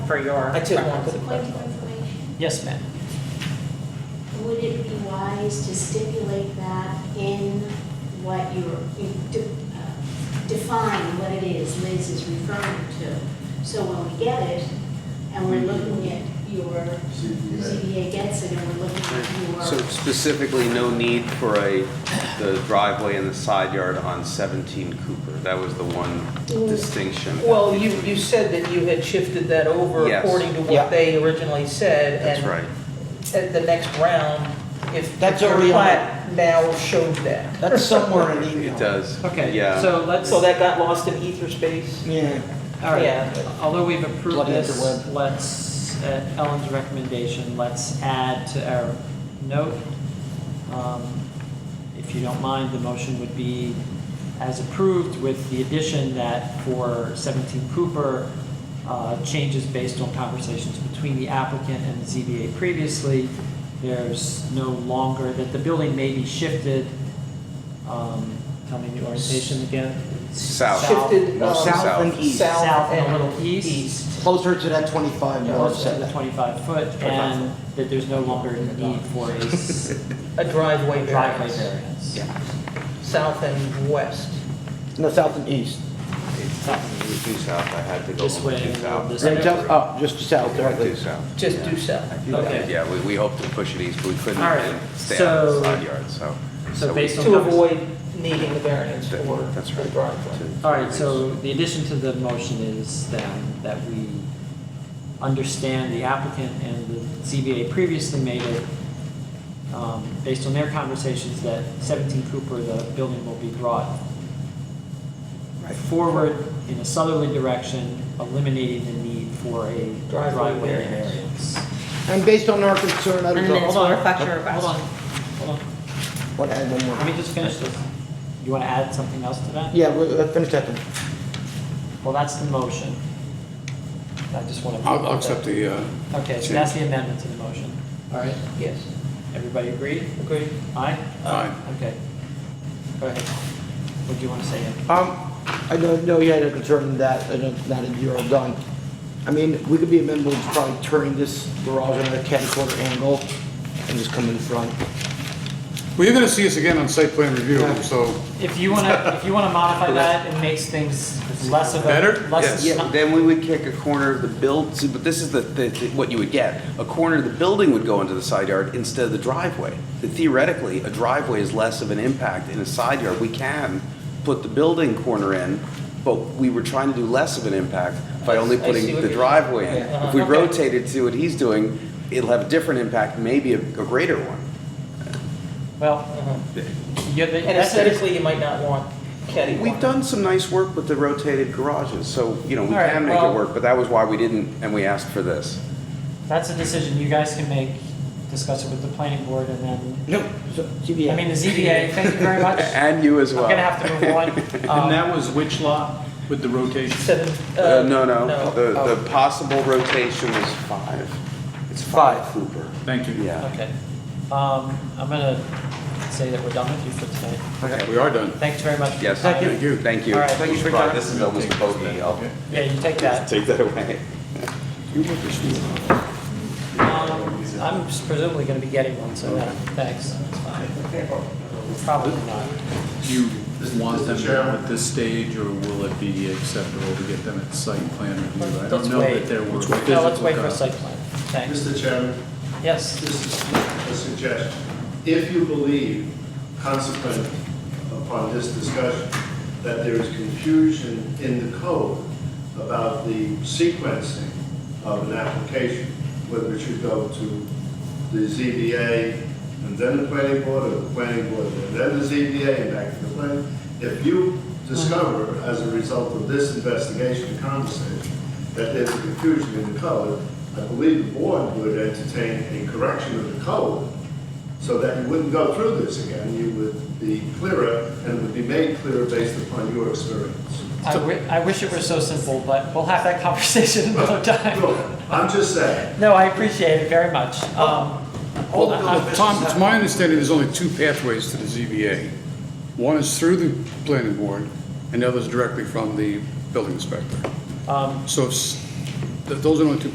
for your. I took one for the Point of information, Yes, ma'am. would it be wise to stipulate that in what you're, you de- uh, define what it is Liz is referring to? So when we get it, and we're looking at your, ZBA gets it, and we're looking at So your, specifically, no need for a, the driveway and the side yard on 17 Cooper. That was the one distinction. Well, you, you said that you had shifted that over Yes. according to Yeah. what they originally said. That's and right. At the next round, if That's your already on plat now showed that. That's somewhere in email. It does. Okay, Yeah. so let's, So all that got lost in ether space? Yeah. right, yeah. although we've Plug approved it at this, the web. let's, at Ellen's recommendation, let's add to our note. um, If you don't mind, the motion would be as approved with the addition that for 17 Cooper, uh, changes based on conversations between the applicant and the ZBA previously, there's no longer, that the building may be shifted, um, tell me the orientation again. South. Shifted, No, um, south. south and east. South and a and little east. east. Closer to that 25 Yeah, north closer to the setback. 25 foot, 25 and that there's no longer a need for a s- A driveway driveway variance. variance. South and west. No, south and east. It's Due south, I had to go. This way, due south. this Then way. south- oh, just south Yeah, directly. due south. Just do south. Okay. Yeah, we, we hoped to push it east, but we couldn't All right, and stay out of so- the side yard, so. so we- based on- To avoid needing the variance for That's the right. driveway. to- All right, so the addition to the motion is then that we understand the applicant and the ZBA previously made it, um, based on their conversations, that 17 Cooper, the building will be brought forward in a southerly direction, eliminating the need for a Driveway driveway variance. variance. And based on our concern, I And was, then it's hold for on, reflector Hold on, request. hold on. want to add one Let more. me just finish this. You want to add something else to that? Yeah, we- let's finish that one. Well, that's the motion. I just want to. I'll, I'll accept the, uh, Okay, so that's the amendment to the motion. All right, Yes, everybody agree? agreed. Aye? Aye. Okay. Go ahead. What do you want to say? Ian? Um, I don't know you had a concern that, I don't, not a zero done. I mean, we could be amenable to probably turning this garage on a ten quarter angle and just come in front. well, you're gonna see us again on site plan review, Yeah. so, If you want to, if you want to modify that, it makes things less of a. Better? Less. Yeah, then we would kick a corner of the build, see, but this is the, the, the- what you would get. A corner of the building would go into the side yard instead of the driveway. Theoretically, a driveway is less of an impact in a side yard. We can put the building corner in, but we were trying to do less of an impact by only I see putting what the you're- driveway in. Yeah. If we Okay. rotate it to what he's doing, it'll have a different impact, maybe a, a greater one. Well, yeah, that- And that's. aesthetically, you might not want caddy corner. We've done some nice work with the rotated garages, so, you know, we All right, can make well- it work, but that was why we didn't, and we asked for this. That's a decision you guys can make, discuss it with the planning board, and then, No, so, ZBA. I mean, the ZBA, thank you very much. I'm And you as well. gonna have to move on. And Um, that was which lot with the rotation? Seven, Uh, uh, no, no, the, Oh, the possible rotation is five. It's five Cooper. Thank you. Yeah. Okay. Um, I'm gonna say that we're done with you for tonight. we are done. Thanks very much. for your Yes. time. Thank you. Thank you. All right, thank you for your time. This is almost a bogey. I'll Yeah, you take that. take that away. Um, I'm presumably gonna be getting one, so no, thanks. It's fine. Probably not. Do you want them now at this stage, or will it be acceptable to get them at site plan review? I Let's don't know wait. that there were physical. No, let's wait for a copies. site plan. Thanks. Mr. Chairman, Yes, this is a suggestion. If you believe, consequent upon this discussion, that there is confusion in the code about the sequencing of an application, whether it should go to the ZBA and then the planning board, or the planning board and then the ZBA and back to the planning, if you discover as a result of this investigation and conversation that there's a confusion in the code, I believe the board would entertain a correction of the code so that you wouldn't go through this again. You would be clearer and it would be made clearer based upon your experience. I wi- I wish it were so simple, but we'll have that conversation another time. Look, I'm just saying, No, I appreciate it very much. Um, Well, I- I'm- Tom, it's my understanding there's only two pathways to the ZBA. One is through the planning board, and the other is directly from the building inspector. Um, So it's- th- those are the only two